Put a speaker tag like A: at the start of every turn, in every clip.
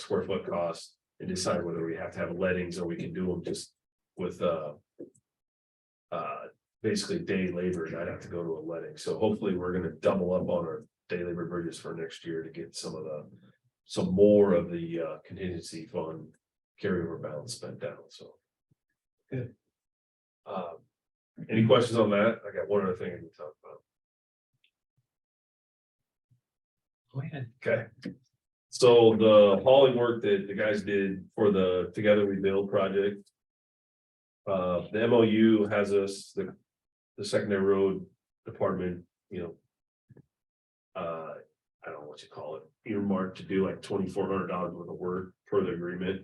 A: square foot cost and decide whether we have to have lettings or we can do them just with, uh. Uh, basically day labor, and I'd have to go to a letting, so hopefully we're gonna double up on our day labor bridges for next year to get some of the. Some more of the uh contingency fund carryover balance spent down, so.
B: Good.
A: Uh, any questions on that? I got one other thing I need to talk about.
B: Go ahead.
A: Okay. So the hauling work that the guys did for the Together We Build project. Uh, the MOU has us, the, the secondary road department, you know. Uh, I don't know what you call it, earmarked to do like twenty-four hundred dollars worth of work per the agreement.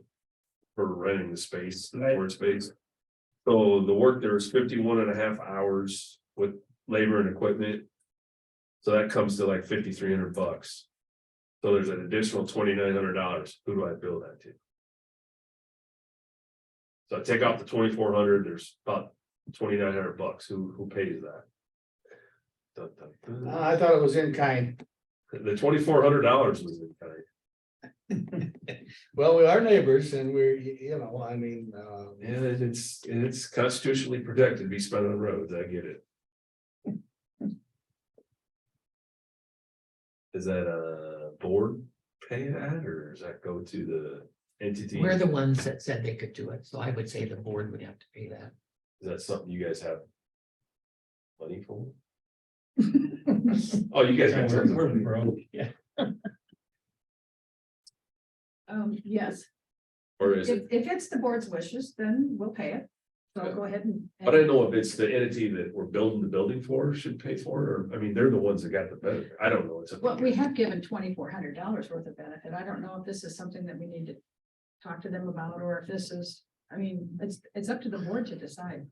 A: For renting the space, the
B: Right.
A: board space. So the work there was 51 and a half hours with labor and equipment. So that comes to like fifty-three hundred bucks. So there's an additional twenty-nine hundred dollars. Who do I bill that to? So I take off the twenty-four hundred, there's about twenty-nine hundred bucks. Who, who pays that? Dun, dun, dun.
B: I thought it was in kind.
A: The twenty-four hundred dollars was in kind.
B: Well, we are neighbors and we're, y- you know, I mean, uh,
A: Yeah, and it's, and it's constitutionally protected to be spent on roads. I get it. Is that a board pay that or does that go to the entity?
C: We're the ones that said they could do it, so I would say the board would have to pay that.
A: Is that something you guys have? Money for? Oh, you guys. got tons of money.
D: Um, yes,
A: Or is
D: if,
A: it,
D: if it's the board's wishes, then we'll pay it. So go ahead and.
A: but I don't know if it's the entity that we're building the building for should pay for it, or, I mean, they're the ones that got the benefit. I don't know. It's a-
D: Well, we have given twenty-four hundred dollars worth of benefit. I don't know if this is something that we need to talk to them about, or if this is, I mean, it's, it's up to the board to decide.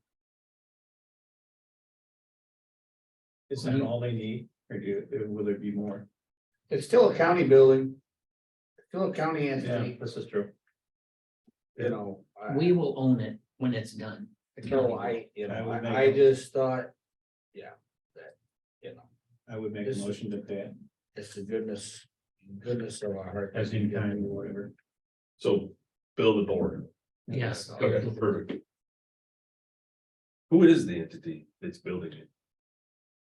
E: Is that all they need, or do, will there be more?
B: it's still a county building. Still a county entity,
E: This is true.
B: you know. I-
C: We will own it when it's done.
B: So I, you
E: I
B: know,
E: would
B: I, I
E: make a-
B: just thought, yeah, that, you know,
E: I would make a
B: This-
E: motion to pay it
B: it's the goodness, goodness of our heart.
E: as in kind or whatever.
A: So build the board.
C: Yes.
A: Okay, perfect. Who is the entity that's building it?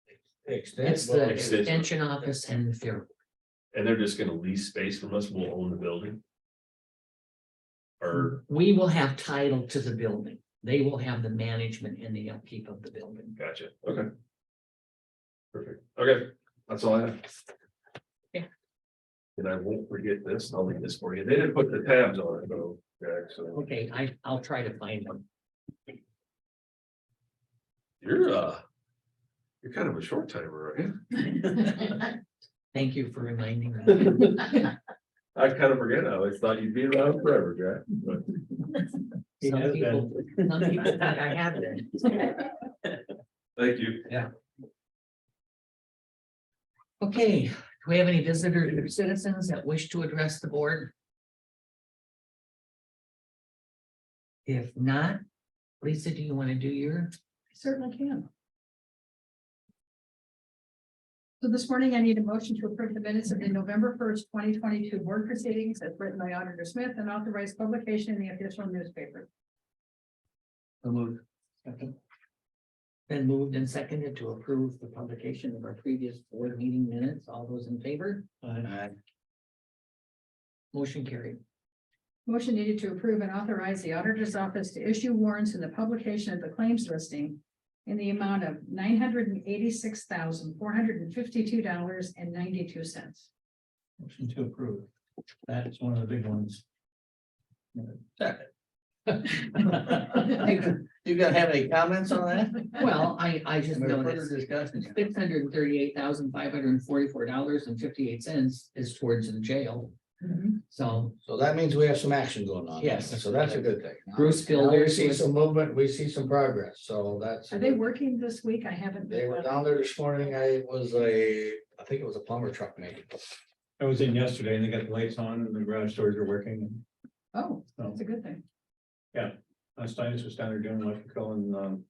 C: It's
B: Extends,
C: the
B: well,
A: Extension.
C: extension office and the fair.
A: And they're just gonna lease space from us, we'll own the building? Or,
C: We will have title to the building. They will have the management and the upkeep of the building.
A: gotcha, okay. Perfect, okay, that's all I have.
C: Yeah.
A: And I won't forget this, and I'll leave this for you, they didn't put the tabs on it, though, Jack, so
C: Okay, I, I'll try to find them.
A: you're, uh. You're kind of a short timer, right?
C: Thank you for reminding me.
A: I kind of forget, I always thought you'd be around forever, Jack, but.
E: He
C: Some
E: has
C: people, some people think I have been.
A: Thank you.
C: Okay, do we have any visitors or citizens that wish to address the board? If not, Lisa, do you want to do your?
D: Certainly can. So this morning I need a motion to approve the minutes of the November first, twenty twenty-two board proceedings as written by Auditor Smith and authorized publication in the official newspaper.
C: Okay. Been moved and seconded to approve the publication of our previous board meeting minutes. All those in favor? Motion carried.
D: Motion needed to approve and authorize the auditor's office to issue warrants in the publication of the claims listing in the amount of nine hundred and eighty-six thousand, four hundred and fifty-two dollars and ninety-two cents.
E: Motion to approve. That is one of the big ones.
B: You gotta have any comments on that?
C: Well, I, I just
B: Any further
C: noticed
B: discussion?
C: six hundred and thirty-eight thousand, five hundred and forty-four dollars and fifty-eight cents is towards the jail. So
B: So that means we have some action going on.
C: Yes.
B: So that's a good thing.
C: Bruce
B: Now We
C: Builders
B: see
C: was-
B: some movement, we see some progress, so that's.
D: Are they working this week? I haven't.
B: They
D: been
B: were down there this morning, I was a, I think it was a plumber truck maybe.
E: I was in yesterday and they got the lights on and the garage doors are working.
D: Oh, that's a good thing.
E: Uh, Steinis was down there doing electrical and, um,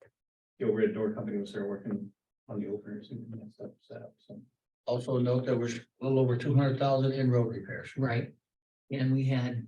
E: the overhead door company was there working on the openers and that stuff set up, so.
B: Also note there was a little over two hundred thousand in road repairs.
C: Right, And we had